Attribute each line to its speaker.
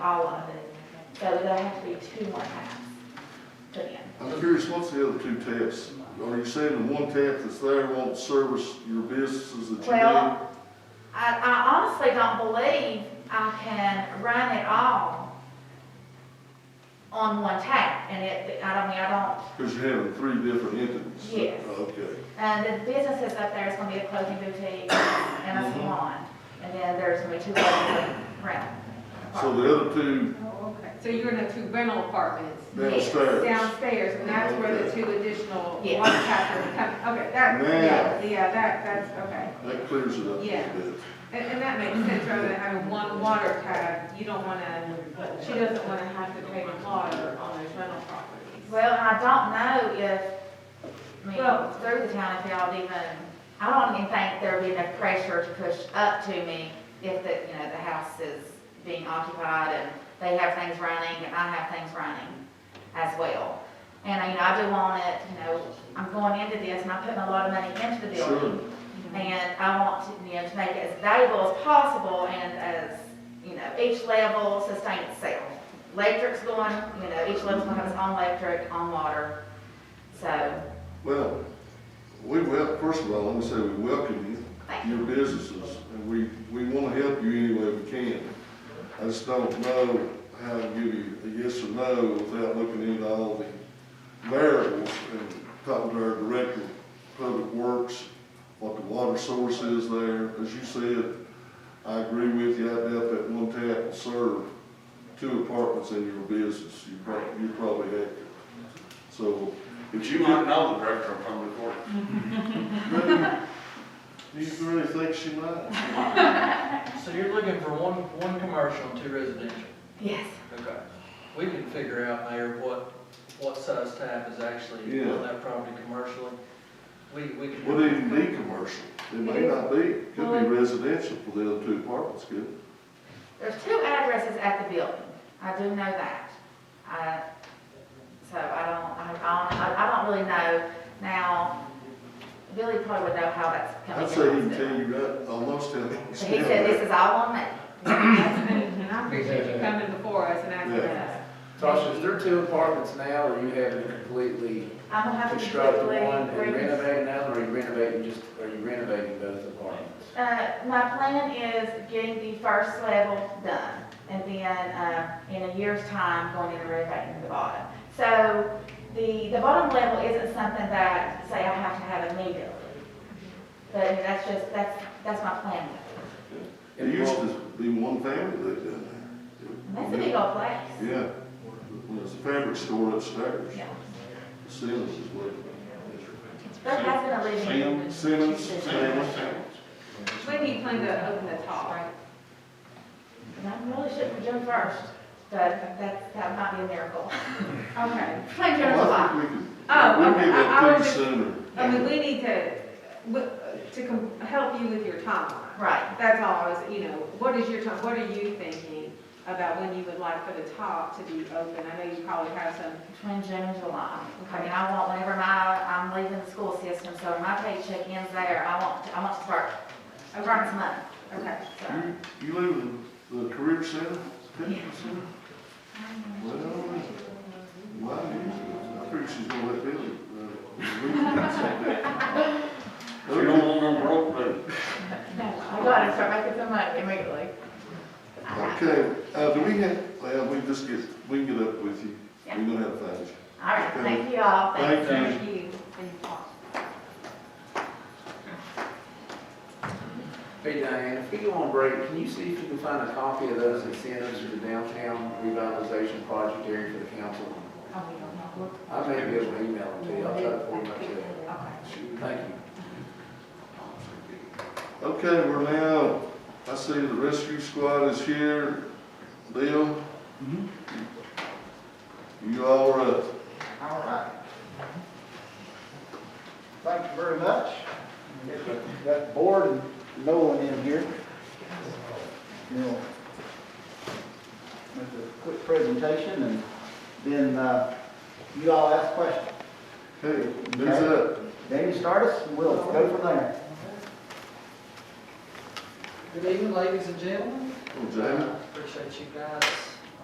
Speaker 1: all of it. So there'll have to be two more times put in.
Speaker 2: I'm curious, what's the other two taps? Are you saying the one tap that's there won't service your businesses that you do?
Speaker 1: Well, I, I honestly don't believe I can run it all on one tap, and it, I don't mean, I don't,
Speaker 2: Because you're having three different entities.
Speaker 1: Yes.
Speaker 2: Okay.
Speaker 1: and the businesses up there is gonna be a clothing boutique and a
Speaker 2: Mhm.
Speaker 1: salon, and then there's gonna be two other rent.
Speaker 2: So the other two
Speaker 3: Oh, okay. So you're gonna have two rental apartments
Speaker 2: downstairs.
Speaker 3: downstairs, and that's where the two additional
Speaker 1: Yeah.
Speaker 3: water taps are coming, okay, that,
Speaker 2: Yeah.
Speaker 3: yeah, yeah, that, that's, okay.
Speaker 2: That clears it up a little
Speaker 3: Yeah.
Speaker 2: bit.
Speaker 3: And, and that makes sense, rather than having one water tap, you don't wanna, she doesn't wanna have to pay the water on those rental properties.
Speaker 1: Well, I don't know if, I
Speaker 3: Well-
Speaker 1: mean, through the town, if y'all even, I don't even think there'd be enough pressure to push up to me if the, you know, the house is being occupied and they have things running and I have things running as well. And, you know, I do want it, you know, I'm going into this and I'm putting a lot of money into the building.
Speaker 2: Sure.
Speaker 1: And I want to, you know, to make it as valuable as possible and as, you know, each level sustain itself. Electric's going, you know, each level's gonna have its own electric, own water, so,
Speaker 2: Well, we wel, first of all, let me say we welcome
Speaker 1: thank
Speaker 2: you,
Speaker 1: you.
Speaker 2: your businesses, and we, we want to help you any way we can. I just don't know how to give you a yes or no without looking into all the variables and talking to our director of public works, what the water source is there. As you said, I agree with you, I doubt that one tap will serve two apartments in your business. You probably, you probably have to. So
Speaker 4: But
Speaker 2: if
Speaker 4: you
Speaker 2: you
Speaker 4: might
Speaker 2: get
Speaker 4: know the director of public works.
Speaker 2: Do you really think she might?
Speaker 5: So you're looking for one, one commercial and two residential?
Speaker 1: Yes,
Speaker 5: Okay. We can figure out, Mayor, what, what size tap is actually
Speaker 2: Yeah.
Speaker 5: on that property commercially. We, we can.
Speaker 2: Would it even be commercial? It may not be, It could be residential for the other two apartments, could it?
Speaker 1: there's two addresses at the building, I do know that. I, so I don't, I don't, I- I don't really know. Now, Billy probably would know how that's coming
Speaker 2: I'd
Speaker 1: in.
Speaker 2: say he can tell you right, almost tell you.
Speaker 1: But he said this is all on me.
Speaker 3: And I appreciate you coming before us and asking
Speaker 2: Yeah.
Speaker 3: us.
Speaker 6: Tasha, is there two apartments now, or you having completely
Speaker 1: I'm gonna have to.
Speaker 6: constructed
Speaker 1: quickly
Speaker 6: one and
Speaker 1: bring this-
Speaker 6: renovating another, or are you renovating just, are you renovating both apartments?
Speaker 1: Uh, my plan is getting the first level done, and then, uh, in a year's time, going in and renovating the bottom. So, the, the bottom level isn't something that, say, I have to have immediately, but that's just, that's, that's my plan.
Speaker 2: It used to be one family lived in
Speaker 1: And
Speaker 2: there.
Speaker 1: That's a big old place.
Speaker 2: Yeah. There's a fabric store upstairs,
Speaker 1: Yeah.
Speaker 2: Simmons is living.
Speaker 1: There has been a living.
Speaker 2: Simmons, Simmons,
Speaker 4: Same,
Speaker 2: Simmons.
Speaker 4: same.
Speaker 3: When do you plan to open the top?
Speaker 1: And I really shouldn't have done first, but that, that might be a miracle.
Speaker 3: Okay,
Speaker 1: Plan June,
Speaker 2: Well, I
Speaker 1: July.
Speaker 2: think we could,
Speaker 3: Oh,
Speaker 2: we'll
Speaker 3: okay.
Speaker 2: get
Speaker 3: I- I
Speaker 2: that
Speaker 3: was
Speaker 2: to you
Speaker 3: just-
Speaker 2: sooner.
Speaker 3: I mean, we need to, w- to com- help you with your timeline.
Speaker 1: Right,
Speaker 3: That's all, is, you know, what is your, time- what are you thinking about when you would like for the top to be open? I know you probably have some,
Speaker 1: between June and July. I mean, I want whenever my, I'm leaving the school system, so when my paycheck ends there, I want, I want to start, I want some money.
Speaker 3: okay.
Speaker 1: So,
Speaker 2: You, you live in the career center? Fitness center? Well, why you, I figured she's gonna let Billy. uh,
Speaker 4: So you don't want no broke dude.
Speaker 1: no, I gotta start making some money immediately. All
Speaker 2: Okay, uh, do we have, well, we just get, we can get up with you. We're gonna have to find you.
Speaker 1: right, thank you all. Thank you.
Speaker 3: Thank you. Thank you.
Speaker 6: Hey Diane, if we go on break, can you see if you can find a copy of those incentives for the downtown revitalization project area for the council?
Speaker 1: Oh, we don't know.
Speaker 6: I may be able to email them to you, I'll try to forward them to you.
Speaker 1: Okay.
Speaker 6: Thank you.
Speaker 2: Okay, we're now, I see the rescue squad is here. Bill? You all are up.
Speaker 7: All right. Thank you very much. Got bored and no one in here. We'll Make a quick presentation and then uh, you all ask questions.
Speaker 2: Hey, who's up?
Speaker 7: Danny, start us and we'll go from there.
Speaker 8: Good evening, ladies and gentlemen.
Speaker 2: Oh, Jamie?
Speaker 8: Appreciate you guys